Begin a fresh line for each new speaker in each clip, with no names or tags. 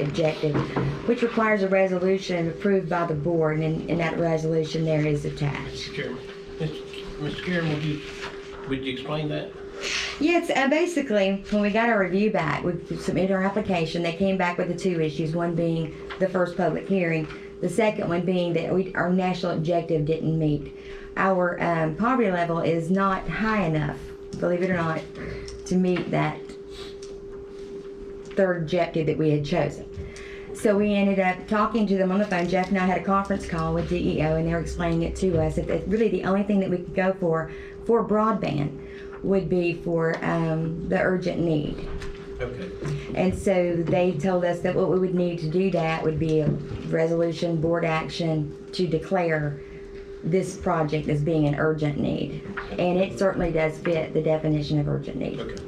injected, which requires a resolution approved by the board, and, and that resolution there is attached.
Mr. Chairman, Mr. Karen, would you, would you explain that?
Yes, uh, basically, when we got our review back, we submitted our application. They came back with the two issues, one being the first public hearing, the second one being that we, our national objective didn't meet. Our um, poverty level is not high enough, believe it or not, to meet that third objective that we had chosen. So we ended up talking to them on the phone. Jeff and I had a conference call with DEO, and they were explaining it to us that that really the only thing that we could go for for broadband would be for um, the urgent need.
Okay.
And so they told us that what we would need to do that would be a resolution, board action to declare this project as being an urgent need. And it certainly does fit the definition of urgent need.
Okay.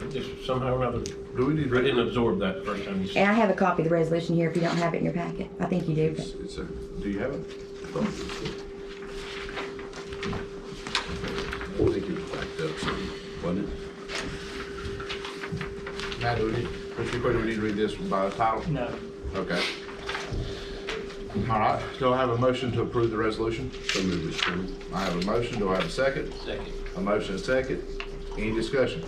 I Just somehow or another,
Do we need,
I didn't absorb that the first time you said.
And I have a copy of the resolution here if you don't have it in your packet. I think you do. but-
it's, it's a, do you have it? Oh, I think it was backed up, so, wasn't it? Matt, do we need, Mr. Quinn, do we need to read this by title?
No.
Okay. All right, do I have a motion to approve the resolution? So moved, Mr. Chairman. I have a motion, do I have a second?
Second.
A motion and a second. Any discussion?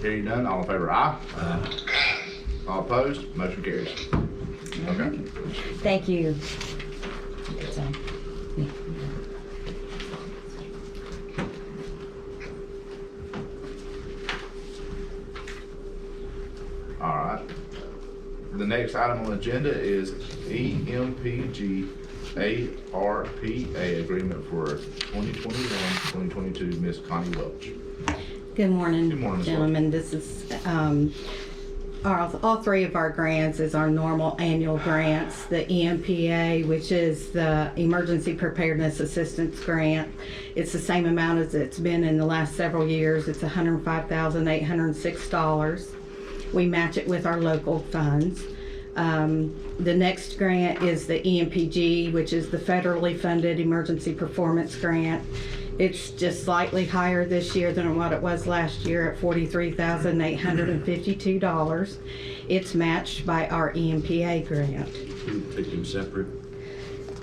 Hearing none, all in favor, aye? Aye. All opposed, motion carries. Okay.
Thank you. So,
All right. The next item on the agenda is E EMPG ARPA Agreement for 2021-2022, Miss Connie Welch.
Good morning.
Good morning, Ms. Welch.
Gentlemen, this is, um, our, all three of our grants is our normal annual grants. The E EMPA, which is the Emergency Preparedness Assistance Grant. It's the same amount as it's been in the last several years. It's hundred and five thousand, eight hundred and six dollars. We match it with our local funds. Um, the next grant is the E EMPG, which is the federally funded emergency performance grant. It's just slightly higher this year than what it was last year at forty-three thousand eight hundred and fifty-two dollars. It's matched by our E EMPA grant.
Take them separate.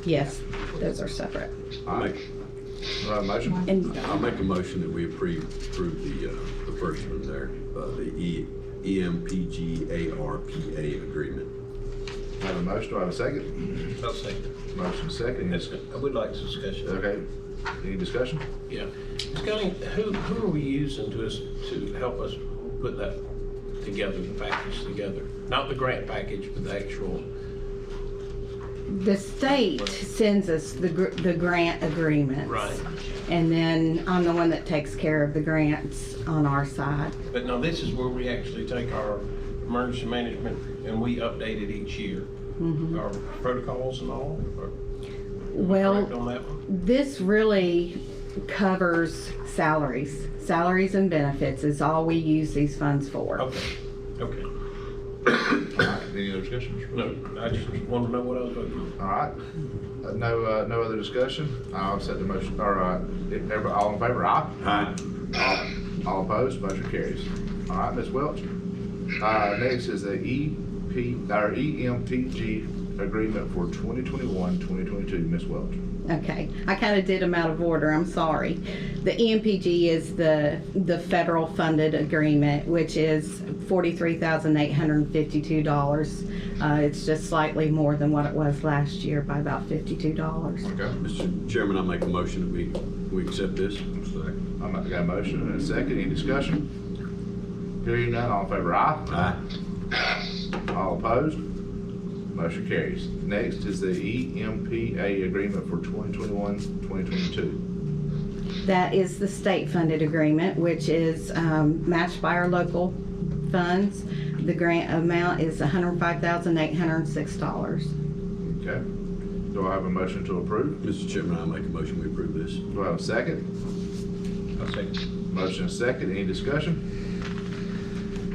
Yes, those are separate.
All right. Do I have a motion?
And
I'll make a motion that we approve, approve the, uh, the first one there, uh, the E, EMPGARPA agreement.
I have a motion, do I have a second?
I'll second.
Motion second.
That's, I would like some discussion.
Okay. Any discussion?
Yeah. Ms. Connie, who, who are we using to us, to help us put that together, the package together? Not the grant package, but the actual,
the state sends us the, gr- the grant agreements.
right?
And then I'm the one that takes care of the grants on our side.
But now this is where we actually take our emergency management and we update it each year. Our protocols and all, or
Well,
correct on that one?
This really covers salaries. Salaries and benefits is all we use these funds for.
Okay, okay.
All right. Any other discussions?
No, I just wanted to know what I was voting on.
All right. Uh, No, uh, no other discussion? I'll accept the motion, or, uh, if everybody, all in favor, aye?
Aye.
All opposed, motion carries. All right, Ms. Welch. Uh, next is the EP, or EMPG agreement for 2021, 2022, Ms. Welch.
Okay, I kind of did them out of order, I'm sorry. The E EMPG is the, the federal funded agreement, which is forty-three thousand eight hundred and fifty-two dollars. Uh, it's just slightly more than what it was last year by about fifty-two dollars.
Okay.
Mr. Chairman, I'll make a motion that we, we accept this.
I'm not, got a motion and a second, any discussion? Hearing none, all in favor, aye?
Aye.
All opposed? Motion carries. Next is the E EMPA agreement for 2021, 2022.
That is the state-funded agreement, which is um, matched by our local funds. The grant amount is $105,806.
Okay. Do I have a motion to approve?
Mr. Chairman, I'll make a motion we approve this.
Do I have a second?
I'll second.
Motion is second, any discussion?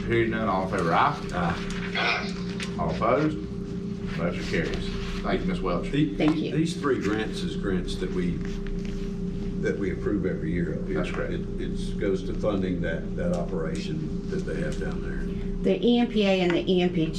Hearing none, all in favor, aye? Aye. All opposed? Motion carries. Thank you, Ms. Welch.
The-
Thank
the-
you.
These three grants is grants that we, that we approve every year up here.
That's correct.
It, it's, goes to funding that, that operation that they have down there.
E The EMPA and the EMPG